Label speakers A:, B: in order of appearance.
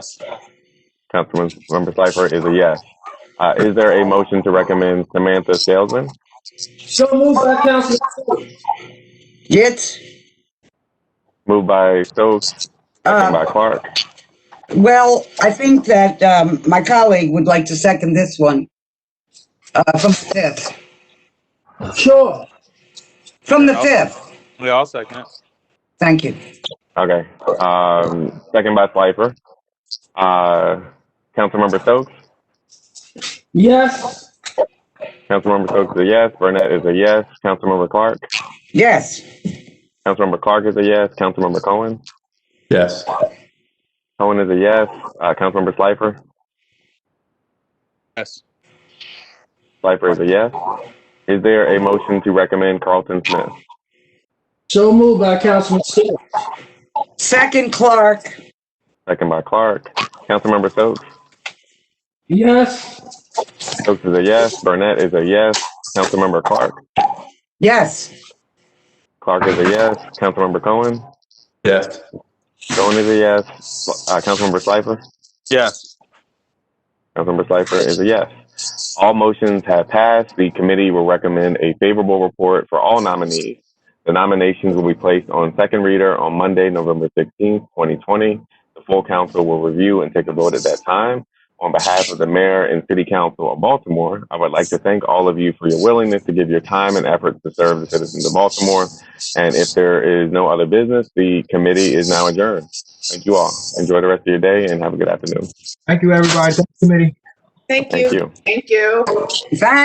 A: Councilman Member Cipher is a yes. Uh, is there a motion to recommend Samantha Salesman?
B: So moved by Councilman Stokes.
C: Yes.
A: Moved by Stokes, second
C: Uh,
A: by Clark.
C: well, I think that um, my colleague would like to second this one uh, from the fifth.
B: Sure.
C: From the
D: Yeah, I'll-
C: fifth.
D: Yeah, I'll second it.
C: Thank you.
A: Okay. Um, second by Cipher. Uh, Councilmember Stokes.
B: Yes.
A: Councilmember Stokes is a yes. Burnett is a yes. Councilmember Clark.
C: Yes.
A: Councilmember Clark is a yes. Councilmember Cohen.
E: Yes.
A: Cohen is a yes. Uh, Councilmember Slifer.
D: Yes.
A: Slifer is a yes. Is there a motion to recommend Carlton Smith?
B: So moved by Councilman Stokes.
C: Second Clark.
A: Second by Clark. Councilmember Stokes.
B: Yes.
A: Stokes is a yes. Burnett is a yes. Councilmember Clark.
C: Yes.
A: Clark is a yes. Councilmember Cohen.
E: Yes.
A: Cohen is a yes. Uh, Councilmember Slifer.
D: Yes.
A: Councilmember Slifer is a yes. All motions have passed. The committee will recommend a favorable report for all nominees. The nominations will be placed on second reader on Monday, November 16th, 2020. The full council will review and take a vote at that time. On behalf of the mayor and city council of Baltimore, I would like to thank all of you for your willingness to give your time and efforts to serve the citizens of Baltimore. And if there is no other business, the committee is now adjourned. Thank you all. Enjoy the rest of your day and have a good afternoon.
F: Thank you, everybody. Thank you, committee.
G: Thank
A: Thank
G: you.
A: you.
G: Thank you.
C: Thank